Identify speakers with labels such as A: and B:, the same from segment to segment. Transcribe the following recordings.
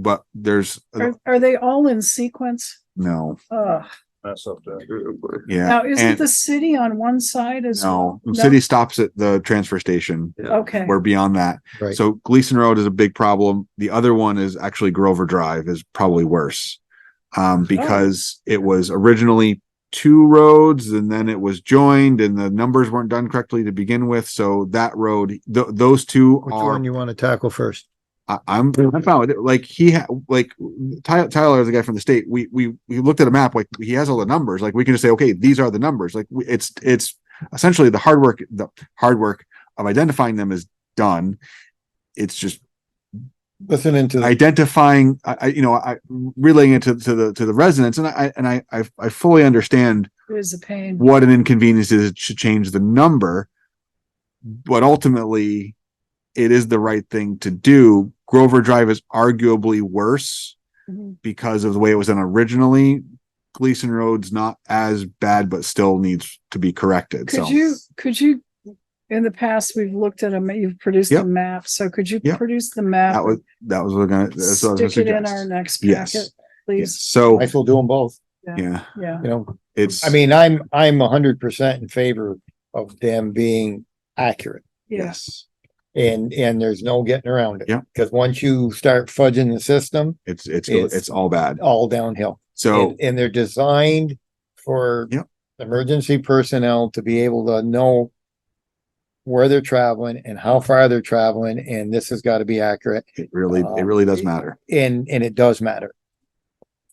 A: but there's
B: Are, are they all in sequence?
A: no,
B: Ugh.
C: Mess up that.
A: yeah.
B: Now, isn't
A: and-
B: the city on one side as
A: No, the
B: well?
A: city stops at the transfer station.
B: Okay,
A: We're beyond that.
D: Right.
A: So Gleason Road is a big problem. The other one is actually Grover Drive is probably worse. Um, because it was originally two roads and then it was joined and the numbers weren't done correctly to begin with. So that road, th- those two
D: Which
A: are
D: one you want to tackle first?
A: I, I'm I'm fine with it. Like he ha- like Tyler, Tyler is a guy from the state. We we we looked at a map. Like he has all the numbers. Like we can just say, okay, these are the numbers. Like we, it's it's essentially the hard work. The hard work of identifying them is done. It's just
D: Listening to.
A: identifying. I, I you know I relaying it to, to the to the residents, and I and I I, I fully understand
B: it is a pain.
A: what an inconvenience it is to change the number. But ultimately, it is the right thing to do. Grover Drive is arguably worse
B: Mhm.
A: because of the way it was done originally. Gleason Road's not as bad, but still needs to be corrected.
B: Could
A: So
B: you, could you, in the past, we've looked at a, ma- you've produced a
A: Yep.
B: map, so could you
A: Yep.
B: produce the map?
A: that was that was what I was
B: and
A: gonna, that's what I was gonna
B: Stick it in our
A: suggest.
B: next
A: Yes.
B: packet,
A: Yeah,
B: please,
A: So
D: I still do them both,
A: yeah,
B: yeah.
D: you know,
A: it's
D: I mean, I'm, I'm a hundred percent in favor of them being accurate.
A: yes,
D: And, and there's no getting around it.
A: Yeah.
D: Because once you start fudging the system,
A: it's it's
D: It's-
A: it's all bad.
D: all downhill.
A: So
D: And, and they're designed for
A: Yep.
D: emergency personnel to be able to know where they're traveling and how far they're traveling, and this has got to be accurate.
A: it really it
D: um,
A: really does
D: it-
A: matter.
D: And, and it does matter.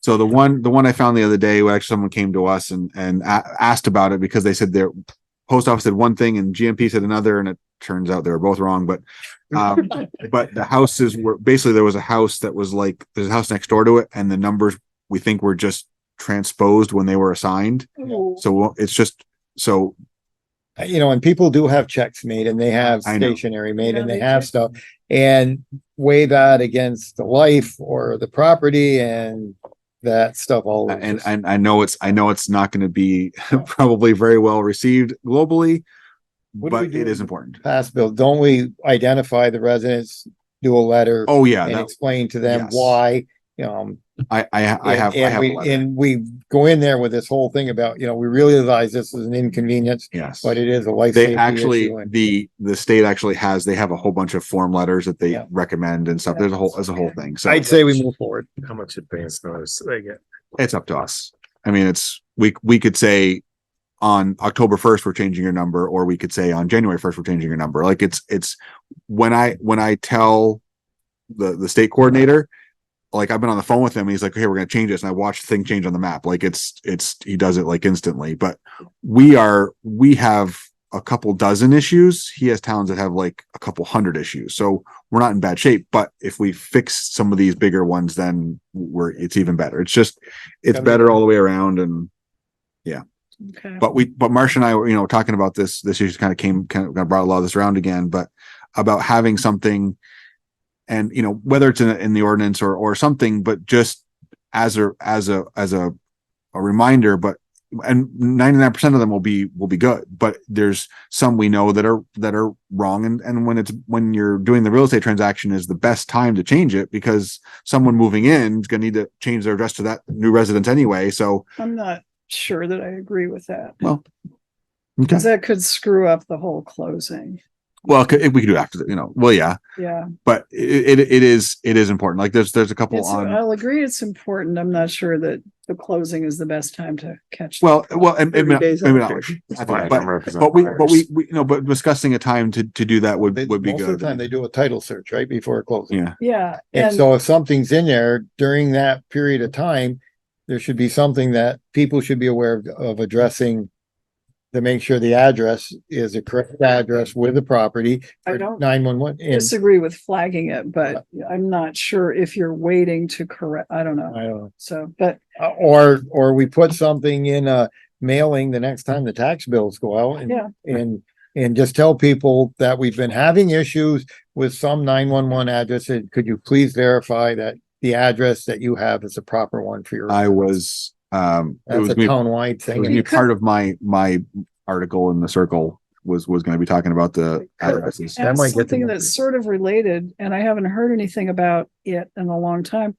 A: So the one, the one I found the other day, where actually someone came to us and and a- asked about it because they said their post office said one thing and GMP said another, and it turns out they were both wrong. But um, but the houses were basically there was a house that was like there's a house next door to it, and the numbers we think were just transposed when they were assigned.
B: Ooh.
A: So it's just so
D: Uh, you know, and people do have checks made and they have
A: I know.
D: stationery made and
B: Yeah,
D: they
B: they
D: have
B: do.
D: stuff. And weigh that against the life or the property and that stuff all. over.
A: Uh, and and I know it's I know it's not going to be probably very well received globally,
D: What do we
A: but
D: do
A: it is
D: with-
A: important.
D: Pass bill, don't we identify the residents, do a letter
A: Oh yeah,
D: and
A: that,
D: explain to them
A: yes.
D: why, you know, um,
A: I I, I
D: and-
A: have I
D: and
A: have a
D: we-
A: letter.
D: And we go in there with this whole thing about, you know, we realize this is an inconvenience,
A: yes,
D: but it is a life.
A: they
D: safety
A: actually
D: issue and-
A: the the state actually has they have a whole bunch of form letters that they
D: Yeah.
A: recommend and stuff there's a whole there's a whole
B: Okay.
A: thing so
D: I'd say we move forward.
C: How much advance notice do they get?
A: it's up to us i mean it's we we could say on october 1st we're changing your number or we could say on january 1st we're changing your number like it's it's when i when i tell the the state coordinator like i've been on the phone with him and he's like okay we're going to change this and i watched the thing change on the map like it's it's he does it like instantly but we are we have a couple dozen issues he has towns that have like a couple hundred issues so we're not in bad shape but if we fix some of these bigger ones then we're it's even better it's just it's
D: Gotta be
A: better all the way around and
B: Okay.
A: but we but Marsh and I were you know talking about this this issue kind of came kind of brought a lot of this around again but about having something and you know whether it's in, in the ordinance or or something but just as a as a as a a reminder but and 99% of them will be will be good but there's some we know that are that are wrong and and when it's when you're doing the real estate transaction is the best time to change it because someone moving in is going to need to change their address to that new residence anyway so
B: I'm not sure that I agree with that.
A: Well, okay.
B: Cause that could screw up the whole closing,
A: well c- we could do after that you know well yeah
B: yeah.
A: but it, it it is it is important. Like there's there's a couple
B: It's, uh,
A: on
B: I'll agree it's important. I'm not sure that the closing is the best time to catch.
A: well well and, and maybe not- maybe not, I think-
C: Fine,
A: but,
C: I'm representing
A: but we but
C: buyers.
A: we, we you know but discussing a time to to do that would
D: They-
A: would be
D: most of
A: good.
D: the time they do a title search right before closing.
A: Yeah.
B: Yeah,
D: And
B: and,
D: so if something's in there during that period of time, there should be something that people should be aware of, of addressing to make sure the address is the correct address with the property.
B: I don't-
D: Nine one one. And
B: disagree with flagging it, but I'm not sure if you're waiting to correct, I don't know.
D: I don't know.
B: So, but
D: Uh, Or, or we put something in a mailing the next time the tax bills go out and,
B: Yeah.
D: and, and just tell people that we've been having issues with some nine one one addresses. Could you please verify that the address that you have is the proper one for your?
A: I was um it
D: That's
A: was
D: a
A: me, it
D: townwide
A: was
D: thing.
A: me part of my my article in the circle was, was gonna be talking about the
B: Correct.
A: addresses.
D: That
B: And
D: might get to
B: something
D: my-
B: that's sort of related, and I haven't heard anything about it in a long time,